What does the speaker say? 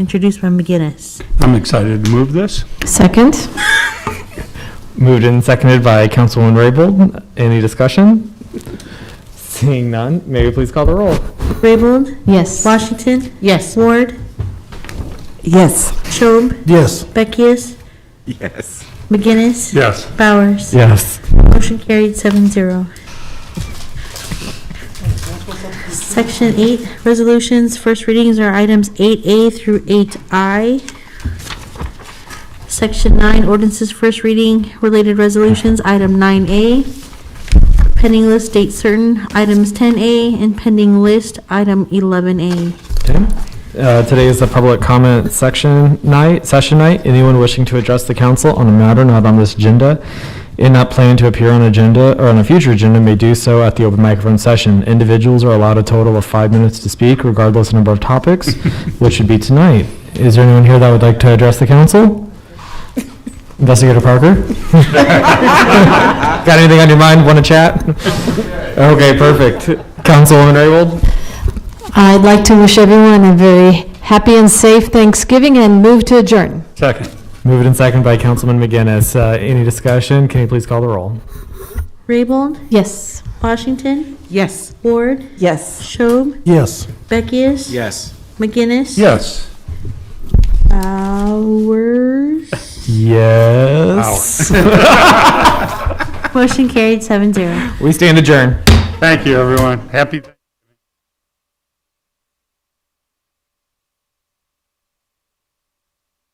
introduced by McGinnis. I'm excited to move this. Second? Moved and seconded by Councilwoman Raybold. Any discussion? Seeing none, may we please call the roll? Raybold? Yes. Washington? Yes. Ward? Yes. Schob? Yes. Beckius? Yes. McGinnis? Yes. Bowers? Yes. Motion carried seven zero. Section eight, resolutions, first readings are items eight A through eight I. Section nine, ordinances, first reading, related resolutions, item nine A. Pending list, date certain, items ten A, and pending list, item eleven A. Okay. Uh, Today is the public comment section night, session night. Anyone wishing to address the council on a matter not on this agenda and not planning to appear on agenda or on a future agenda may do so at the open microphone session. Individuals are allowed a total of five minutes to speak regardless of number of topics, which should be tonight. Is there anyone here that would like to address the council? Investigator Parker? Got anything on your mind? Want to chat? Okay, perfect. Councilwoman Raybold? I'd like to wish everyone a very happy and safe Thanksgiving and move to adjourn. Second. Moved and seconded by Councilman McGinnis. Uh, Any discussion? Can you please call the roll? Raybold, Yes. Washington, Yes. Ward, Yes. Schob, Yes. Beckius. Yes. McGinnis. Yes. Bowers. Yes. Motion carried seven zero. We stand adjourned. Thank you, everyone. Happy.